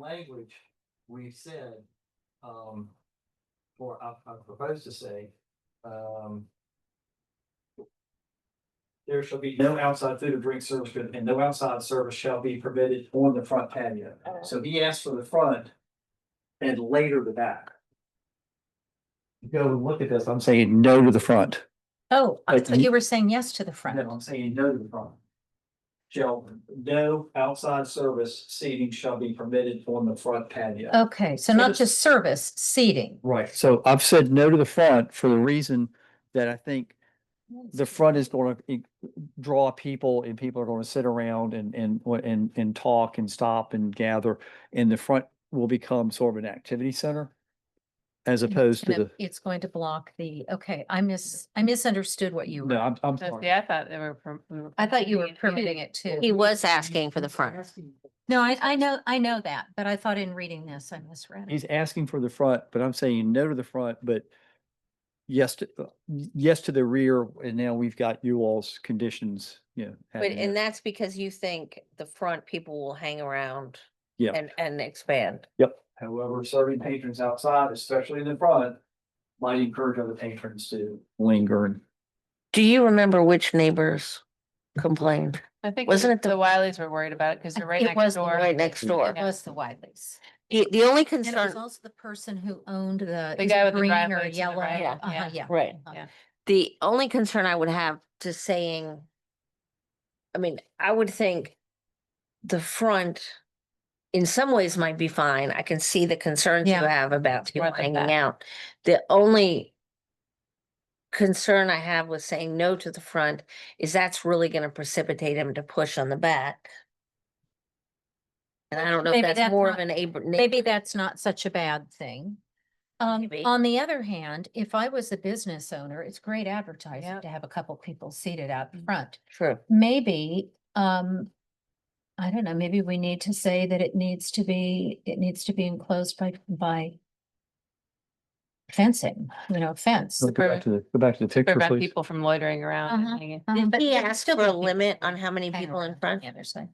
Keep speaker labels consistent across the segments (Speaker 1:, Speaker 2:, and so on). Speaker 1: language, we said, um, or I, I propose to say, um. There shall be no outside food or drink service, and no outside service shall be permitted on the front patio.
Speaker 2: Oh.
Speaker 1: So he asked for the front and later the back. Go look at this, I'm saying no to the front.
Speaker 2: Oh, I
Speaker 1: But
Speaker 2: thought
Speaker 1: you-
Speaker 2: you were saying yes to the
Speaker 1: No,
Speaker 2: front.
Speaker 1: I'm saying no to the front. Shall, no outside service seating shall be permitted on the front
Speaker 2: Oh,
Speaker 1: patio.
Speaker 2: Okay, so
Speaker 1: So
Speaker 2: not
Speaker 1: this-
Speaker 2: just service, seating.
Speaker 3: Right, so I've said no to the front for the reason that I think the front is gonna i- draw people and people are gonna sit around and, and, wa- and, and talk and stop and gather. And the front will become sort of an activity center as opposed to
Speaker 2: And
Speaker 3: the,
Speaker 2: it- It's going to block the, okay, I miss, I misunderstood what you,
Speaker 3: no,
Speaker 2: were.
Speaker 3: I'm, I'm
Speaker 4: That's-
Speaker 3: sorry.
Speaker 4: Yeah, I thought they were. per- we were
Speaker 2: I thought you were permitting
Speaker 4: permitting
Speaker 2: it too.
Speaker 5: He was asking for the front.
Speaker 2: No, I, I know, I know that, but I thought in reading this, I misread
Speaker 3: He's
Speaker 2: it.
Speaker 3: asking for the front, but I'm saying no to the front, but yes to, uh, y- yes to the rear. And now we've got you all's conditions, you know.
Speaker 5: But,
Speaker 3: having
Speaker 5: and
Speaker 3: that.
Speaker 5: that's because you think the front people will hang around.
Speaker 3: Yeah.
Speaker 5: And, and expand.
Speaker 1: However, serving patrons outside, especially in the front, might encourage other patrons to.
Speaker 3: Lingering.
Speaker 5: Do you remember which neighbors complained?
Speaker 4: I think
Speaker 5: Wasn't
Speaker 4: wasn't
Speaker 5: it
Speaker 4: it the Wileys were worried about it because
Speaker 2: I
Speaker 4: they're
Speaker 2: think
Speaker 4: right
Speaker 2: it
Speaker 4: next
Speaker 2: was the
Speaker 4: door.
Speaker 5: Right next door.
Speaker 2: It was the Wileys.
Speaker 5: The, the only
Speaker 2: And it was
Speaker 5: concern,
Speaker 2: also the person who owned the.
Speaker 4: The
Speaker 2: is
Speaker 4: guy
Speaker 2: it
Speaker 4: with the
Speaker 2: green or
Speaker 4: driveway to the
Speaker 2: Yellow.
Speaker 4: right,
Speaker 2: Uh-huh,
Speaker 4: yeah.
Speaker 2: Yeah.
Speaker 5: Right,
Speaker 2: uh-huh.
Speaker 4: yeah.
Speaker 5: Um, the only concern I would have to saying, I mean, I would think the front in some ways might be fine. I can see the concerns you
Speaker 2: Yeah.
Speaker 5: have about people
Speaker 4: More than
Speaker 5: hanging
Speaker 4: that.
Speaker 5: out. The only concern I have with saying no to the front is that's really gonna precipitate him to push on the back. And I don't know if
Speaker 2: Maybe
Speaker 5: that's
Speaker 2: that's
Speaker 5: more of
Speaker 2: not-
Speaker 5: an neighbor.
Speaker 2: Maybe that's not such a bad thing. Um,
Speaker 5: Maybe.
Speaker 2: on the other hand, if I was a business owner, it's great advertising
Speaker 4: Yep.
Speaker 2: to have a couple people seated out
Speaker 5: Mm-hmm.
Speaker 2: front.
Speaker 5: True.
Speaker 2: Maybe, um, I don't know, maybe we need to say that it needs to be, it needs to be enclosed by, by fencing, you know, fence.
Speaker 3: Go back to the, go back to the picture,
Speaker 4: Prevent
Speaker 3: please.
Speaker 4: people from loitering around
Speaker 2: Uh-huh.
Speaker 4: and hanging.
Speaker 2: Um,
Speaker 5: Did
Speaker 2: but
Speaker 5: he
Speaker 2: there would
Speaker 5: ask
Speaker 2: still be
Speaker 5: for a
Speaker 2: people
Speaker 5: limit on how many
Speaker 2: hanging
Speaker 5: people in
Speaker 2: around
Speaker 5: front?
Speaker 2: the other side.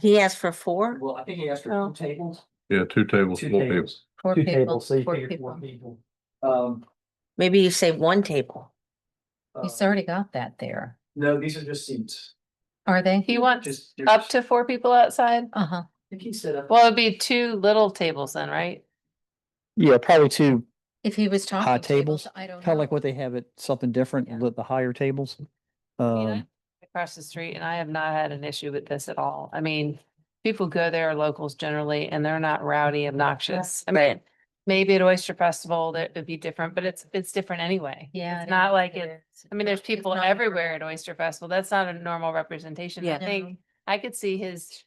Speaker 5: He asked for four?
Speaker 1: Well, I think he asked for
Speaker 5: Oh.
Speaker 1: two tables.
Speaker 6: Yeah, two tables,
Speaker 1: Two
Speaker 6: four tables.
Speaker 1: tables.
Speaker 2: Four
Speaker 1: Two
Speaker 2: people,
Speaker 1: tables, so you
Speaker 2: four
Speaker 1: figure four
Speaker 2: people.
Speaker 1: people. Um.
Speaker 5: Maybe you say one table.
Speaker 1: uh,
Speaker 2: He's already got that there.
Speaker 1: No, these are just seats.
Speaker 2: Are they?
Speaker 4: He wants
Speaker 1: Just. they're
Speaker 4: up
Speaker 1: just-
Speaker 4: to four people outside.
Speaker 2: Uh-huh.
Speaker 1: I think he said up.
Speaker 4: Well, it'd be two little tables then, right?
Speaker 3: Yeah, probably two
Speaker 2: If he was talking.
Speaker 3: High
Speaker 2: tables,
Speaker 3: tables,
Speaker 2: I don't know.
Speaker 3: kind of like what they have at something
Speaker 2: Yeah.
Speaker 3: different, the, the higher tables.
Speaker 4: mean, I-
Speaker 3: Um,
Speaker 4: Across the street and I have not had an issue with this at all. I mean, people go there, locals generally, and they're not rowdy, obnoxious. I mean, maybe at Oyster Festival, that would be different, but it's, it's different anyway.
Speaker 2: Yeah.
Speaker 4: It's not like it,
Speaker 2: it's.
Speaker 4: I mean, there's people
Speaker 2: not a normal-
Speaker 4: everywhere at Oyster Festival. That's not a normal representation. I
Speaker 5: Yeah.
Speaker 4: think I could see his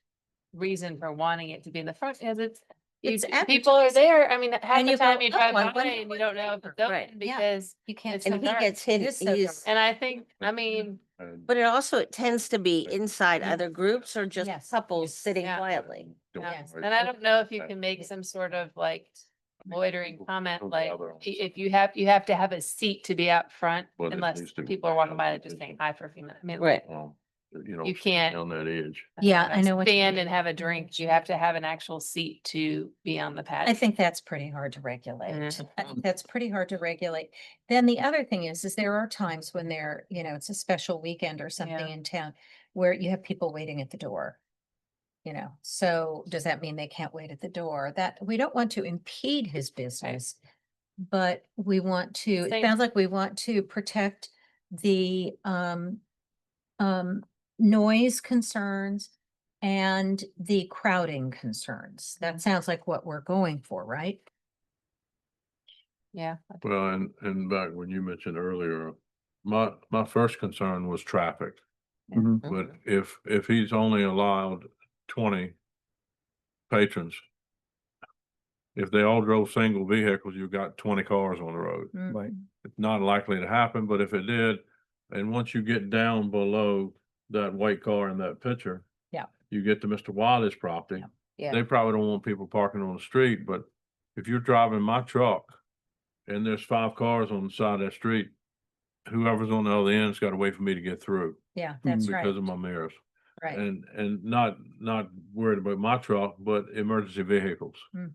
Speaker 4: reason for wanting it to be in the front, because it's. you-
Speaker 2: It's
Speaker 4: People are there, I mean, half
Speaker 2: And
Speaker 4: the
Speaker 2: you go,
Speaker 4: time you
Speaker 2: "Oh,
Speaker 4: drive
Speaker 2: I
Speaker 4: by
Speaker 2: wonder
Speaker 4: and you
Speaker 2: what's
Speaker 4: don't know if
Speaker 2: there."
Speaker 4: it's open
Speaker 5: Right.
Speaker 2: Yeah.
Speaker 4: because,
Speaker 2: You can't.
Speaker 4: It's so
Speaker 5: And he
Speaker 4: dark.
Speaker 5: gets hit,
Speaker 2: It is so
Speaker 5: he's,
Speaker 2: dark.
Speaker 4: and I think, I mean,
Speaker 6: And
Speaker 5: but it also, it tends to be inside
Speaker 2: Yeah.
Speaker 5: other groups or just
Speaker 2: Yes.
Speaker 5: couples sitting
Speaker 4: Yeah.
Speaker 5: quietly.
Speaker 6: don't
Speaker 4: um,
Speaker 2: Yes.
Speaker 6: worry.
Speaker 4: and I don't know if you
Speaker 6: Right.
Speaker 4: can make some sort of like loitering
Speaker 6: People
Speaker 4: comment,
Speaker 6: don't
Speaker 4: like,
Speaker 6: gather on
Speaker 4: i-
Speaker 6: the
Speaker 4: if you have, you have to have a seat to be out front
Speaker 6: Well, there
Speaker 4: unless
Speaker 6: needs to be
Speaker 4: people are walking by and
Speaker 6: some
Speaker 4: just saying
Speaker 6: vision.
Speaker 4: hi for a few minutes. I mean,
Speaker 5: Right.
Speaker 6: Um, You know,
Speaker 4: You can't.
Speaker 6: on that edge.
Speaker 2: Yeah, I know what you
Speaker 4: Stand
Speaker 2: mean.
Speaker 4: uh, and have a drink. You have to have an actual seat to be on the patio.
Speaker 2: I think that's pretty hard to regulate.
Speaker 4: Mm-hmm.
Speaker 2: I think That's pretty hard to regulate. Then the other thing is, is there are times when there, you know, it's a special weekend or something in town where you have people waiting at the door. You know, so does that mean they can't wait at the door? That, we don't want to impede his business. But we want to, it
Speaker 4: Same.
Speaker 2: sounds like we want to protect the um um noise concerns and the crowding concerns. That sounds like what we're going for, right?
Speaker 4: Yeah. I think-
Speaker 6: Well, and, and back when you mentioned earlier, my, my first concern was traffic.
Speaker 3: mhm.
Speaker 6: But
Speaker 4: Mm-hmm.
Speaker 6: if, if he's only allowed twenty patrons, if they all drove single vehicles, you've got twenty cars on the road.
Speaker 2: Mm,
Speaker 3: Right.
Speaker 6: It's not likely to happen, but if it did, and once you get down below that white car in that picture.
Speaker 2: Yeah.
Speaker 6: You get to Mr. Wiley's property.
Speaker 5: Yeah.
Speaker 6: They probably don't want people parking on the street, but if you're driving my truck and there's five cars on the side of that street, whoever's on the other end's gotta wait for me to get through
Speaker 2: Yeah,
Speaker 3: that's
Speaker 2: that's
Speaker 6: Mm,
Speaker 2: right.
Speaker 6: because of my mirrors.
Speaker 2: right.
Speaker 6: and, and not, not worried about my truck, but emergency vehicles.